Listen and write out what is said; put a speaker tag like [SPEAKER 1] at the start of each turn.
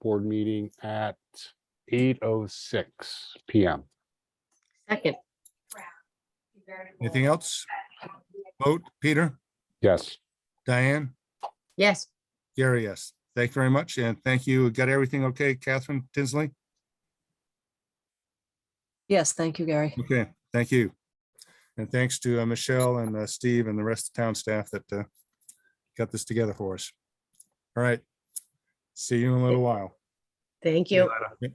[SPEAKER 1] board meeting at eight oh six PM.
[SPEAKER 2] Second,
[SPEAKER 3] Anything else? Vote, Peter,
[SPEAKER 1] Yes,
[SPEAKER 3] Diane,
[SPEAKER 2] yes,
[SPEAKER 3] Gary, yes. Thank you very much, and thank you. Got everything okay, Catherine Tinsley?
[SPEAKER 4] Yes, thank you, Gary.
[SPEAKER 3] Okay, thank you. And thanks to uh, Michelle and uh, Steve and the rest of town staff that uh, got this together for us. All right. See you in a little while.
[SPEAKER 2] thank you.